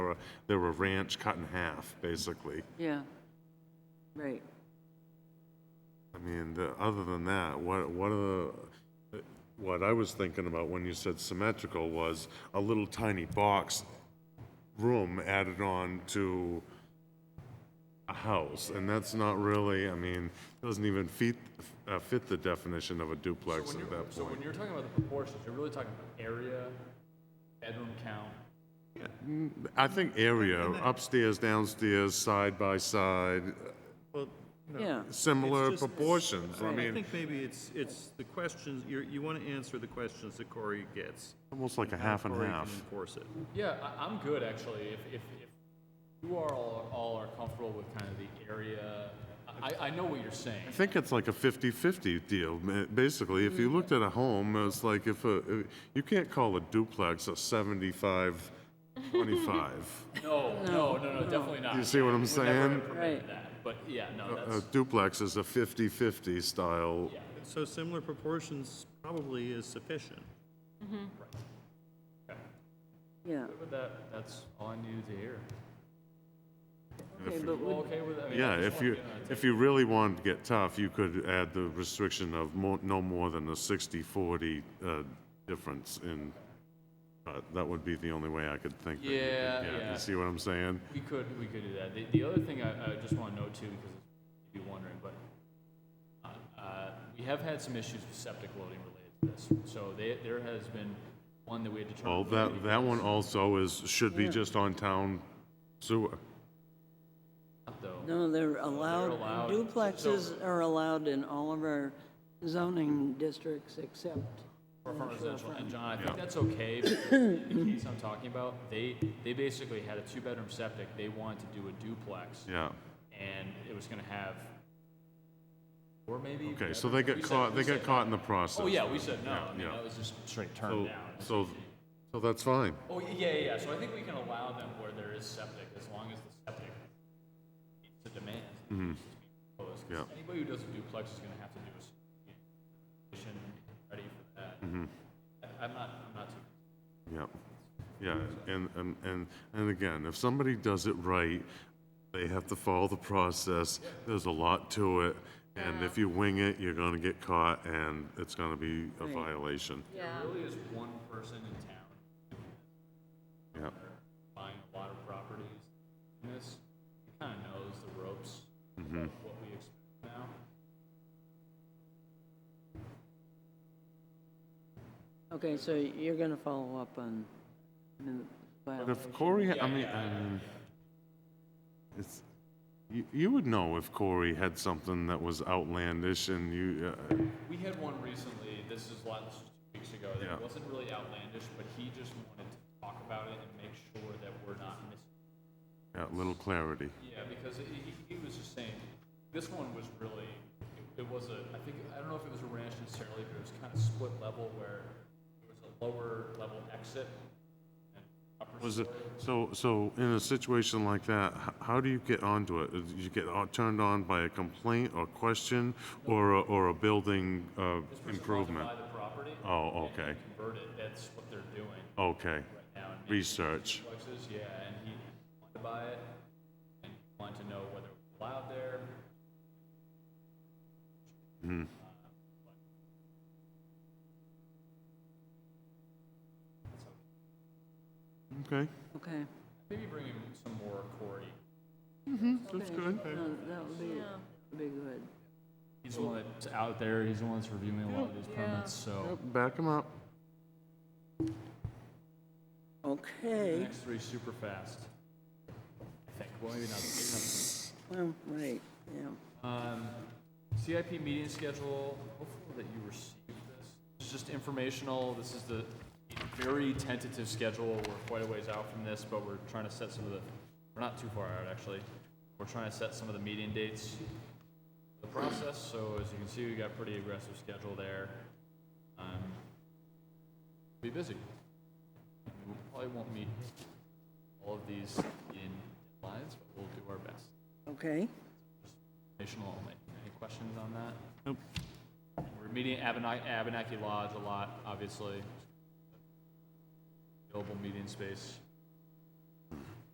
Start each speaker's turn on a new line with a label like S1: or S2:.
S1: were, they were ranch cut in half, basically.
S2: yeah. Right.
S1: I mean, the, other than that, what, what are the, what I was thinking about when you said symmetrical was a little tiny box room added on to a house, and that's not really, I mean, doesn't even fit, uh, fit the definition of a duplex
S3: When
S1: at
S3: you're-
S1: that
S3: So when
S1: point.
S3: you're talking about the proportions, you're really talking area, bedroom count.
S1: I think area, upstairs, downstairs, side by side,
S4: Well, no.
S2: Yeah.
S1: similar
S4: It's just-
S1: proportions, I
S4: I
S1: mean,
S4: think maybe it's, it's the questions, you're, you want to answer the questions that Corey gets.
S1: almost like a half and
S4: Corey can
S1: half.
S4: enforce it.
S3: Yeah, I, I'm good actually. If, if, if you are all, all are comfortable with kind of the area, I, I know what you're saying.
S1: I think it's like a 50-50 deal, ma- basically. If you
S3: Mm.
S1: looked at a home, it's like if a, if- you can't call a duplex a 75-25.
S3: No, no, no, no, definitely not.
S1: You see what I'm
S3: We're never gonna
S1: saying?
S3: permit
S2: Right.
S3: that, But yeah, no,
S1: A
S3: that's,
S1: duplex is a 50-50 style.
S3: yeah.
S4: So similar proportions probably is sufficient.
S2: Yeah.
S3: But that, that's all I needed to hear.
S2: Okay, but
S3: You all
S2: would,
S3: okay with that? I mean, I
S1: Yeah,
S3: just
S1: if
S3: wanna
S1: you,
S3: get on a
S1: if you really wanted to get tough, you could add the restriction of more, no more than a 60-40 uh, difference in, uh, that would be the only way I could think. that you could
S3: Yeah,
S1: get-
S3: yeah.
S1: You see what I'm saying?
S3: We could, we could do that. The, the other thing I, I just want to note too, because you'd be wondering, but uh, uh, we have had some issues with septic loading related to this. So they, there has been one that we had to
S1: Well,
S3: determine.
S1: Oh, that, that one also is, should be just on town sewer.
S3: Though,
S2: no, they're allowed,
S3: allowed.
S2: duplexes are allowed in all of our zoning districts except,
S3: for front residential, and John, I think that's okay, but in the case I'm talking about, they, they basically had a two-bedroom septic, they wanted to do a duplex,
S1: Yeah.
S3: and it was gonna have, or maybe.
S1: Okay, so
S3: bedrooms.
S1: they
S3: We
S1: got
S3: said-
S1: caught,
S3: we
S1: they got
S3: said-
S1: caught in the process.
S3: Oh, yeah, we said no,
S1: Yeah,
S3: I mean,
S1: yeah.
S3: that was just straight
S1: So,
S3: turned down.
S1: so, so that's fine.
S3: Oh, y- yeah, yeah, yeah. so I think we can allow them where there is septic, as long as the septic meets the demand. Proposed, 'cause
S1: Mm-hmm. Yeah.
S3: Anybody who does a duplex is gonna have to do a s- condition ready for that.
S1: Mm-hmm.
S3: I- I'm not, I'm not too.
S1: Yeah, yeah, and, and, and and again, if somebody does it right, they have to follow the process, there's a lot to it, and if you wing it, you're gonna get caught, and it's gonna be a
S2: Right.
S1: violation.
S3: There really is one person in town
S1: Yeah,
S3: buying a lot of properties in this, kinda knows the ropes, of
S1: Mm-hmm.
S3: what we expect now.
S2: okay, so you're gonna follow up on, I mean,
S1: but
S2: well,
S1: if Corey, I mean, um, it's, you, you would know if Corey had something that was outlandish and you, uh,
S3: We had one recently, this is a lot, this was two weeks ago,
S1: Yeah.
S3: that wasn't really outlandish, but he just wanted to talk about it and make sure that we're not missing.
S1: yeah, little clarity.
S3: Yeah, because he- he, he was just saying, this one was really, it- it was a, I think, I don't know if it was a ranch necessarily, but it was kind of split level where there was a lower level exit and upper
S1: Was it,
S3: story.
S1: so, so in a situation like that, h- how do you get onto it? Do you get on- turned on by a complaint or question or, a- or a building uh, improvement?
S3: Buy the property.
S1: Oh,
S3: and
S1: okay,
S3: Convert it, that's what they're doing
S1: okay.
S3: right now. and maybe-
S1: Research,
S3: duplexes, yeah, and he wanted to buy it, and he wanted to know whether it was allowed there.
S1: okay,
S2: okay.
S3: Maybe bring him some more Corey.
S1: that's good.
S2: No, That would be, be good.
S3: He's the one that's out there, he's the one that's reviewing a lot of these permits, so.
S1: Yep, Back them up.
S3: The
S2: Okay,
S3: next three super fast. I think, well, maybe not.
S2: well, right, yeah.
S3: Um, CIP meeting schedule, hopefully that you received this. This is just informational, this is the very tentative schedule, we're quite a ways out from this, but we're trying to set some of the, we're not too far out, actually. We're trying to set some of the meeting dates for the process, so as you can see, we got a pretty aggressive schedule there. Um, Be busy. We probably won't meet all of these in lines, but we'll do our best.
S2: Okay,
S3: Informational only. Any questions on that? Nope. We're meeting at Abenaki, Abenaki Lodge a lot, obviously. Available meeting space.